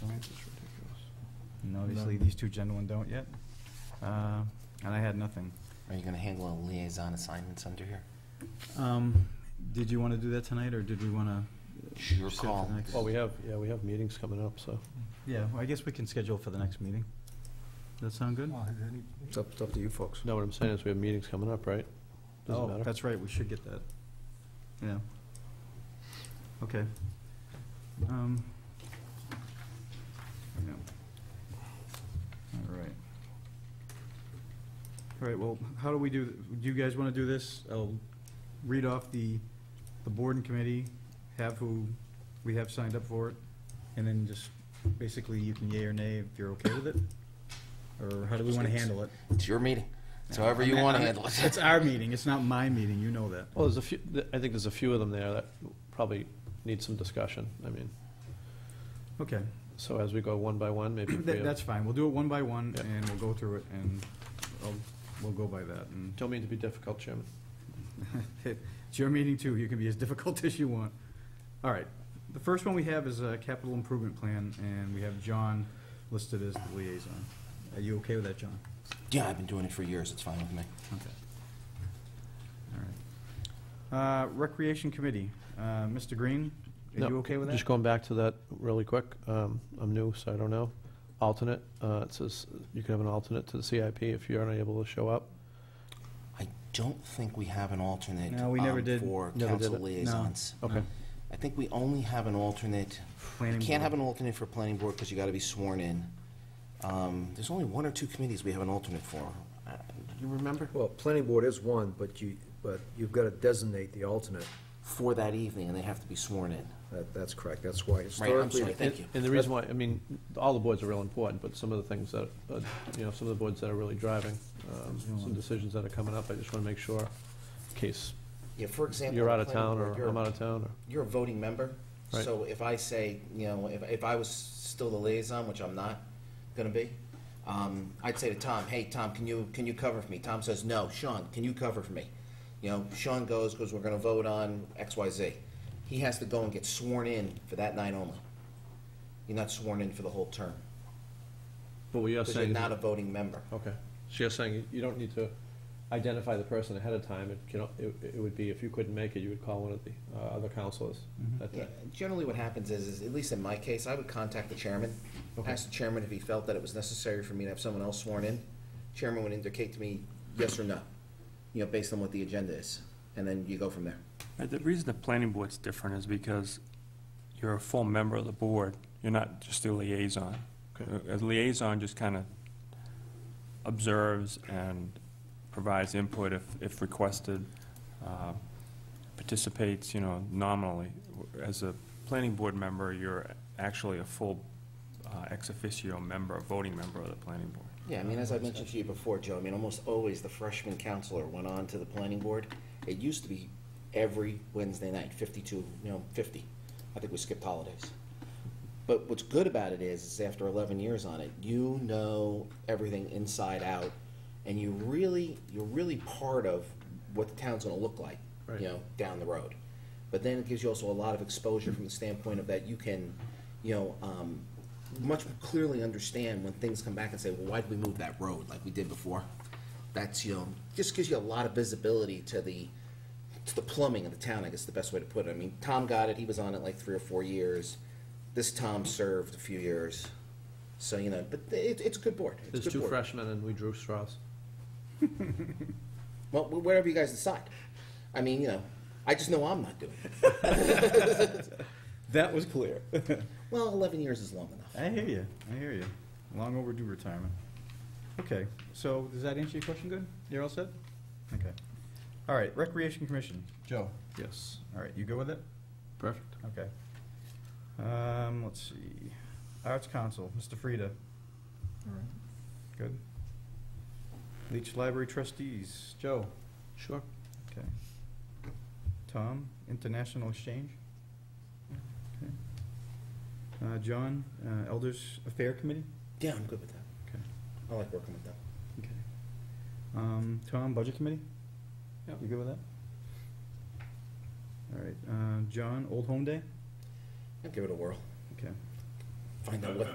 Science is ridiculous. And obviously, No. these two gentlemen don't yet. Uh, And I had nothing. Are you gonna handle liaison assignments under here? Um, Did you want to do that tonight, or did we want to? Your call. Well, we have, yeah, we have meetings coming up, so. Yeah, well, I guess we can schedule for the next meeting. Does that sound good? It's up, it's up to you folks. No, what I'm saying is we have meetings coming up, right? Doesn't Oh, matter. that's right, we should get that. Yeah. Okay. Um, yeah. All right. All right, well, how do we do, do you guys want to do this? I'll read off the, the board and committee, have who we have signed up for it, and then just, basically, you can yea or nay if you're okay with it? Or how do we want to handle it? It's your meeting. It's however you wanna handle it. It's our meeting, it's not my meeting, you know that. Well, there's a few, th- I think there's a few of them there that probably need some discussion. I mean, Okay, so as we go one by one, maybe. if we that, have- that's fine, we'll do it one by one, Yeah. and we'll go through it, and I'll, we'll go by that, and Don't mean to be difficult, Chairman. it's your meeting too, you can be as difficult as you want. All right, the first one we have is a capital improvement plan, and we have John listed as the liaison. Are you okay with that, John? Yeah, I've been doing it for years. It's fine with me. Okay. All right. Uh, Recreation Committee, uh, Mr. Green, are No, you okay with that? Just going back to that really quick, um, I'm new, so I don't know. Alternate, uh, it says you can have an alternate to the CIP if you're unable to show up. I don't think we have an alternate. No, we never um, did. For Never did council it. No. liaisons. Okay. I think we only have an alternate. You Planning can't have board. an alternate for planning board because you gotta be sworn in. Um, there's only one or two committees we have an alternate for. Uh, You remember? Well, planning board is one, but you, but you've got to designate the alternate. For that evening, and they have to be sworn in. That, that's correct. That's why Right, I'm historically. sorry, thank you. And the reason why, I mean, all the boards are real important, but some of the things that, uh, you know, some of the boards that are really driving, um, some decisions that are coming up, I just wanna make sure, in case Yeah, for example. you're out the of planning town board, or you're- I'm out of town, or, You're a voting member, Right. so if I say, you know, if, if I was still the liaison, which I'm not gonna be, um, I'd say to Tom, hey, Tom, can you, can you cover for me? Tom says, no, Sean, can you cover for me? You know, Sean goes, goes, we're gonna vote on X, Y, Z. He has to go and get sworn in for that night only. You're not sworn in for the whole term, but what you're because you're saying is. not a voting member. Okay, so you're saying you- you don't need to identify the person ahead of time, it can, it, it would be, if you couldn't make it, you would call one of the, uh, other counselors Mm-hmm. that Yeah, day. generally what happens is, is, at least in my case, I would contact the chairman, ask the chairman if he felt that it was necessary for me to have someone else sworn in. Chairman would indicate to me yes or no, you know, based on what the agenda is, and then you go from there. Uh, The reason the planning board's different is because you're a full member of the board, you're not just a liaison. Okay. A a liaison just kind of observes and provides input if, if requested, uh, participates, you know, nominally. As a planning board member, you're actually a full uh, ex officio member, a voting member of the planning board. Yeah, I mean, as I mentioned to you before, Joe, I mean, almost always the freshman counselor went on to the planning board. It used to be every Wednesday night, fifty-two, you know, fifty. I think we skipped holidays. But what's good about it is, is after eleven years on it, you know everything inside out, and you really, you're really part of what the town's gonna look like, Right. you know, down the road. But then it gives you also a lot of exposure from the standpoint of that you can, you know, um, much more clearly understand when things come back and say, well, why did we move that road like we did before? That's, you know, just gives you a lot of visibility to the, to the plumbing of the town, I guess is the best way to put it. I mean, Tom got it, he was on it like three or four years. This Tom served a few years. So, you know, but it, it's a good board. It's a There's good two board. freshmen and we drew straws. Well, wh- whatever you guys decide. I mean, you know, I just know I'm not doing it. That was clear. Well, 11 years is long enough. I hear you, I hear you. Long overdue retirement. Okay, so does that answer your question good? You're all set? Okay. All right, Recreation Commission, Joe. Yes. All right, you go with it? Perfect. Okay. Um, let's see. Arts Council, Mr. Frida. All right. Good. Leech Library Trustees, Joe. Sure. Okay. Tom, International Exchange. Okay. Uh, John, uh, Elders Affair Committee. Yeah, I'm good with that. Okay. I like working with them. Okay. Um, Tom, Budget Committee? Yep. You good with that? All right, uh, John, Old Home Day? I'll give it a whirl. Okay. Find out what